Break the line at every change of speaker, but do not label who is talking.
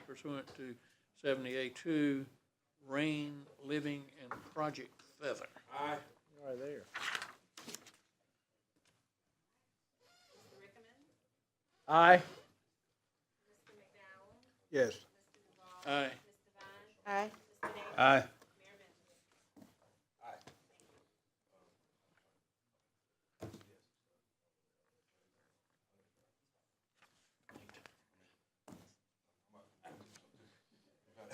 pursuant to seventy-eight two, Rain Living and Project Feather.
Aye.
Right there. Aye. Yes.
Aye.
Aye.
Aye.